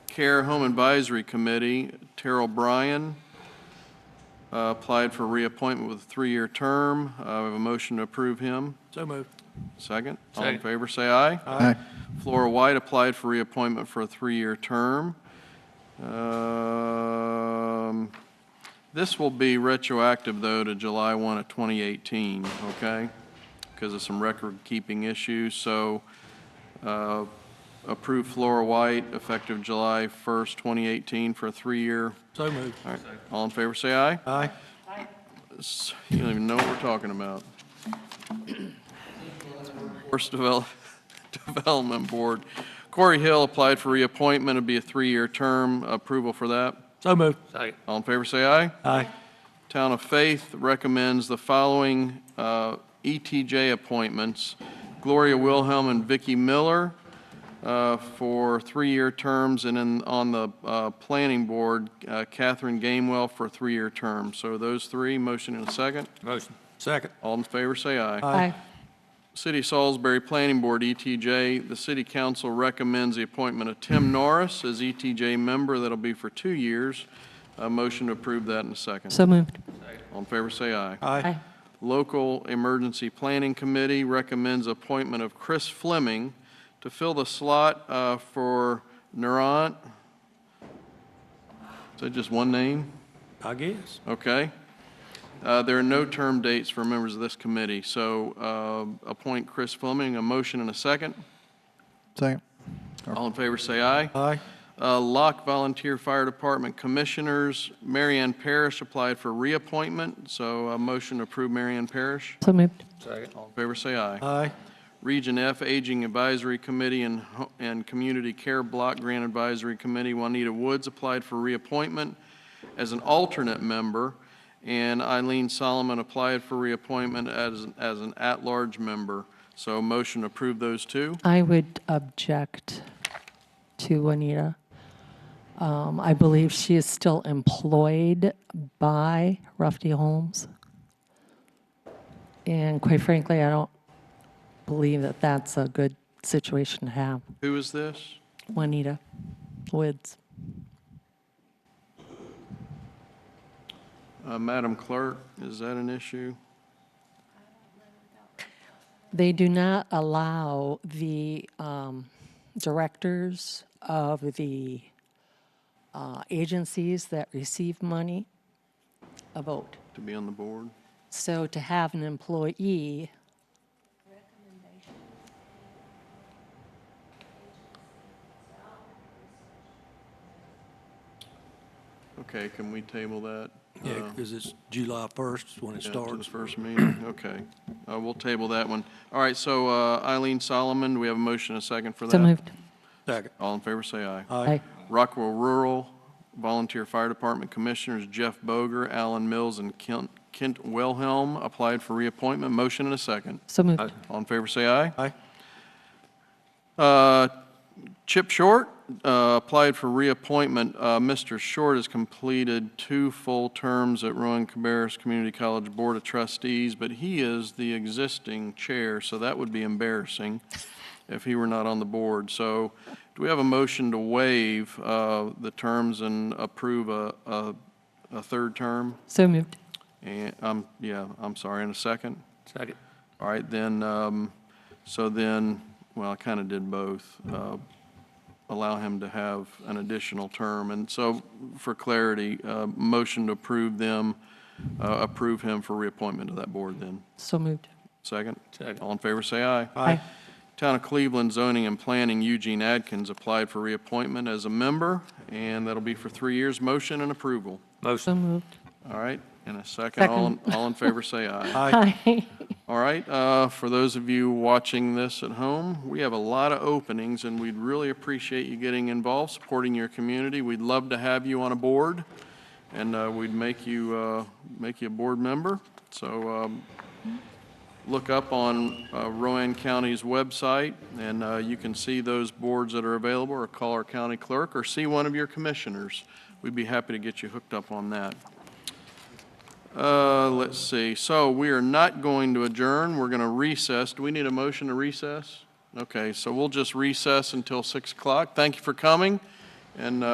Care Home Advisory Committee, Terrell Bryan uh, applied for reappointment with a three-year term. Uh, We have a motion to approve him. So moved. Second? All in Second. favor, say aye. Aye. Flora White applied for reappointment for a three-year term. Um, This will be retroactive, though, to July 1 of 2018, okay? Because of some record-keeping issues, so uh, approve Flora White effective July 1st, 2018 for a three-year. So moved. All right, all in favor, say aye. Aye. S- You don't even know what we're talking about. Workforce Devel- Development Board. Corey Hill applied for reappointment, it'd be a three-year term, approval for that. So moved. All in favor, say aye. Aye. Town of Faith recommends the following uh, ETJ appointments. Gloria Wilhelm and Vicky Miller uh, for three-year terms, and then on the uh, Planning Board, uh, Catherine Gamewell for a three-year term. So those three, motion and a second. Motion. Second. All in favor, say aye. Aye. City of Salisbury Planning Board, ETJ, the city council recommends the appointment of Tim Norris as ETJ member. That'll be for two years. A motion to approve that in a second. So moved. All in favor, say aye. Aye. Aye. Local Emergency Planning Committee recommends appointment of Chris Fleming to fill the slot uh, for Narant. Is that just one name? I guess. Okay. Uh, There are no term dates for members of this committee, so uh, appoint Chris Fleming, a motion and a second. Second. All in favor, say aye. Aye. Uh, Lock Volunteer Fire Department Commissioners, Marianne Parrish applied for reappointment, so a motion to approve Marianne Parrish. So moved. All in favor, say aye. Aye. Region F Aging Advisory Committee and, Ho- and Community Care Block Grant Advisory Committee, Juanita Woods applied for reappointment as an alternate member, and Eileen Solomon applied for reappointment as, as an at-large member. So motion to approve those two. I would object to Juanita. Um, I believe she is still employed by Ruffey Holmes. And quite frankly, I don't believe that that's a good situation to have. Who is this? Juanita Woods. Uh, Madam Clerk, is that an issue? They do not allow the um, directors of the uh, agencies that receive money a vote. To be on the board? So to have an employee. Okay, can we table that? Yeah, Uh, because it's July 1st is when it Yeah, to the starts. first meeting, okay. Uh, We'll table that one. All right, so uh, Eileen Solomon, do we have a motion, and a second for that? So moved. Second. All in favor, say aye. Aye. Rockwell Rural Volunteer Fire Department Commissioners Jeff Boger, Alan Mills, and Kent Kent Wilhelm applied for reappointment. Motion and a second. So moved. All in favor, say aye. Aye. Uh, Chip Short uh, applied for reappointment. Uh, Mr. Short has completed two full terms at Rowan Cabarrus Community College Board of Trustees, but he is the existing chair, so that would be embarrassing if he were not on the board. So do we have a motion to waive uh, the terms and approve a, a, a third term? So moved. And, um, yeah, I'm sorry, in a second? Second. All right, then, um, so then, well, I kind of did both. uh, Allow him to have an additional term. And so, for clarity, uh, motion to approve them, uh, approve him for reappointment to that board then. So moved. Second? Second. All in favor, say aye. Aye. Town of Cleveland Zoning and Planning Eugene Adkins applied for reappointment as a member, and that'll be for three years. Motion and approval. So moved. All right, and a second. All in- All in favor, say aye. Aye. All right, uh, for those of you watching this at home, we have a lot of openings, and we'd really appreciate you getting involved, supporting your community. We'd love to have you on a board, and uh, we'd make you, uh, make you a board member. So um, look up on uh, Rowan County's website, and uh, you can see those boards that are available, or call our county clerk, or see one of your commissioners. We'd be happy to get you hooked up on that. Uh, let's see, so we are not going to adjourn, we're gonna recess. Do we need a motion to recess? Okay, so we'll just recess until six o'clock. Thank you for coming, And uh,